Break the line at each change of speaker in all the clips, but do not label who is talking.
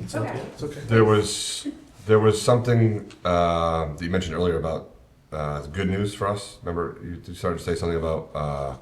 It's
Okay.
okay, it's okay.
There was, there was something uh, that you mentioned earlier about uh, the good news for us. Remember, you you started to say something about uh,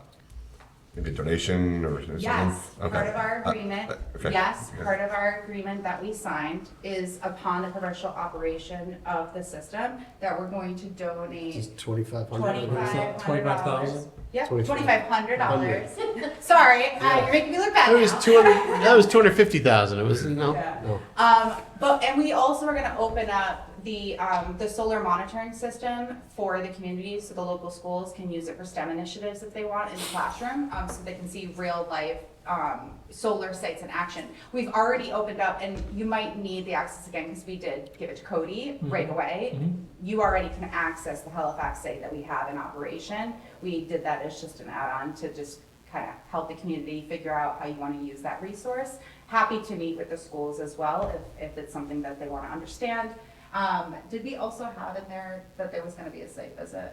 maybe a donation or something?
Yes, part
Okay.
of our
Uh,
agreement,
okay.
yes,
Yeah.
part of our agreement that we signed is upon the commercial operation of the system that we're going to donate
Just twenty-five hundred.
twenty-five hundred dollars.
$2,500?
Yeah,
$2,500.
twenty-five hundred dollars. Sorry, uh, you're making me look bad
It was
now.
two hundred, that was two hundred fifty thousand, it was, no,
Yeah.
no.
Um, but, and we also are gonna open up the, um, the solar monitoring system for the community, so the local schools can use it for STEM initiatives if they want in the classroom, um, so they can see real life, um, solar sites in action. We've already opened up, and you might need the access again, because we did give it to Cody right away. You already can access the Halifax site that we have in operation. We did that as just an add-on to just kind of help the community figure out how you want to use that resource. Happy to meet with the schools as well if, if it's something that they want to understand. Um, did we also have in there that there was going to be a site visit?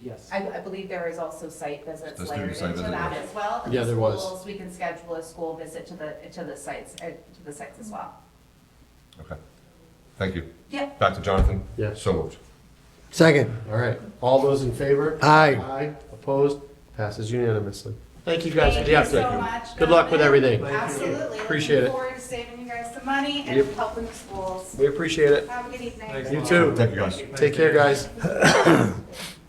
Yes.
I, I believe there is also site visits
The student
layered
site
into
visit,
that
yeah.
as well. and
Yeah,
the
there was.
schools, We can schedule a school visit to the, to the sites, uh, to the sites as well.
Okay, thank you.
Yeah.
Back to Jonathan.
Yeah.
So moved.
Second.
All right, all those in favor?
Aye.
Aye, opposed, passes unanimously. Thank you guys for the
Thank you
update.
so much.
Good luck with
Jonathan.
everything.
Absolutely.
Appreciate
Looking
it.
Forward to saving you guys some money and
Yep.
helping the schools.
We appreciate it.
Have a good evening.
Thanks.
You too.
Thank you, guys.
Take care, guys.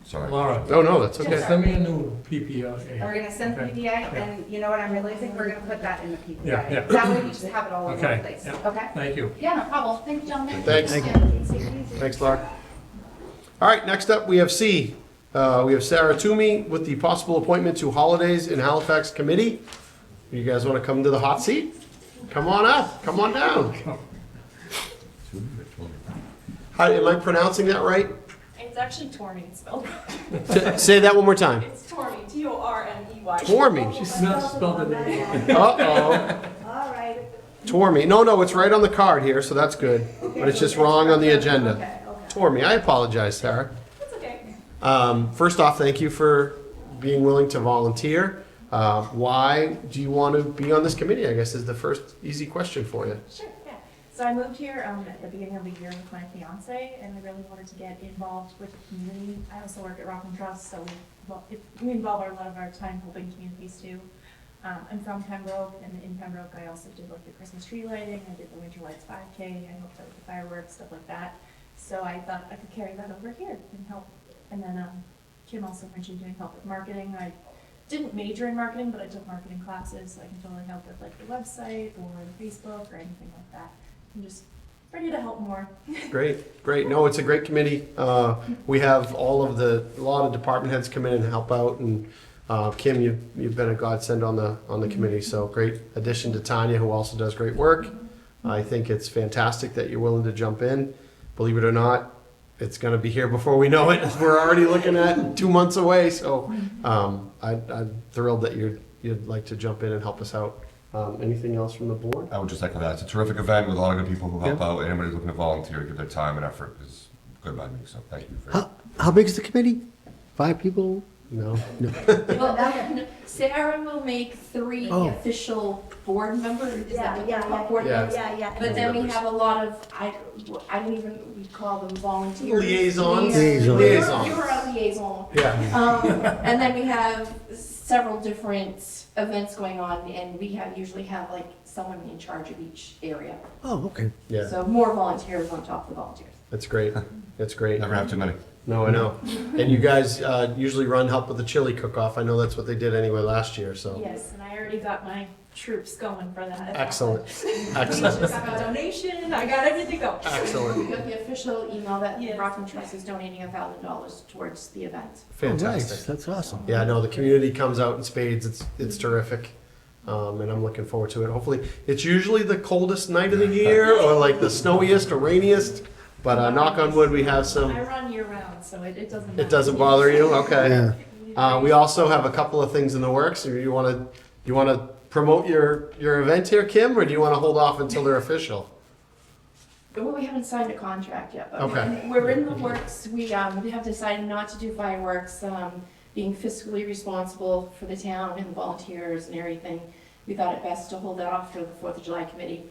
Sorry.
Laura,
Oh, no, that's
Yes,
okay.
sir.
send me a new
And we're
PPA.
gonna send
Okay.
PDA, and you know what I'm realizing, we're gonna put that in the
Yeah, yeah.
PDA. That way we just have it all over the
Okay,
place,
yeah.
okay?
Thank you.
Yeah, no problem, thank you, gentlemen.
Thanks.
Yeah,
Thank
take it easy.
Thanks, Lark. All right, next up, we have C. Uh, We have Sarah Toomey with the possible appointment to Holidays in Halifax Committee. You guys want to come to the hot seat? Come on up, come on down. Hi, Am I pronouncing that right?
It's actually Tormy spelled.
T- Say that one more time.
It's Tormy, T O R M E Y.
Tormy.
She's not spelled it.
Uh-oh.
All right.
Tormy. No, no, it's right on the card here, so that's good. But it's just wrong on the agenda.
Okay, okay.
Tormy, I apologize, Sarah.
It's okay.
Um, first off, thank you for being willing to volunteer. Uh, why do you want to be on this committee? I guess is the first easy question for you.
Sure, yeah. So I moved here um, at the beginning of the year with my fiance, and we really wanted to get involved with the community. I also work at Rockland Trust, so we, well, if- we involve our- a lot of our time helping communities too. Um, I'm from Pembroke, and in Pembroke, I also did like the Christmas tree lighting, I did the Winter Lights 5K, I helped out with the fireworks, stuff like that. So I thought I could carry that over here and help. And then um, Kim also mentioned doing help with marketing. I didn't major in marketing, but I took marketing classes, so I can totally help with like the website or Facebook or anything like that. I'm just ready to help more.
Great, great. No, it's a great committee. Uh, we have all of the a lot of department heads come in and help out, and uh, Kim, you you've been a godsend on the on the committee. So great addition to Tanya, who also does great work. I think it's fantastic that you're willing to jump in. Believe it or not, it's going to be here before we know it. We're already looking at two months away. So um, I, I'm thrilled that you're you'd like to jump in and help us out. Um, anything else from the board?
I would just echo that. It's a terrific event with a lot of good people who help out. Anybody who's looking to volunteer, give their time and effort is good by me, so thank you. for
How, how big is the committee? Five people?
No.
Well, that- Sarah will make three
Oh.
official board members, is that
Yeah,
what
yeah,
they're
yeah.
called? Board
Yeah.
members?
Yeah, yeah.
But then we have a lot of, I, I don't even, we call them volunteers.
Liaisons.
Liaisons.
Liaisons.
You're you're a liaison.
Yeah.
Um, and then we have several different events going on, and we have, usually have like someone in charge of each area.
Oh, okay.
Yeah.
So more volunteers on top of the volunteers.
That's great. That's great.
Never have too many.
No, I know. And you guys uh, usually run help with the chili cook-off. I know that's what they did anyway last year. So
Yes, and I already got my troops going for that.
excellent,
I
excellent,
just got a donation, I got everything going.
excellent,
We got the official email that
Yes.
Rockland Trust is donating a thousand dollars towards the event.
Oh, nice.
fantastic.
That's awesome.
Yeah, no, the community comes out in spades. It's it's terrific, um, and I'm looking forward to it. Hopefully, it's usually the coldest night of the year, or like the snowiest or rainiest. But uh, knock on wood, we have
I
some.
run year round, so it, it doesn't matter.
It doesn't bother you, okay?
Yeah.
Uh, we also have a couple of things in the works. Do you want to you want to promote your your event here, Kim, or do you want to hold off until they're official?
Well, we haven't signed a contract yet, but
Okay.
we're in the works. We, um, we have decided not to do fireworks, um, being fiscally responsible for the town and the volunteers and everything. We thought it best to hold that off for the Fourth of July committee.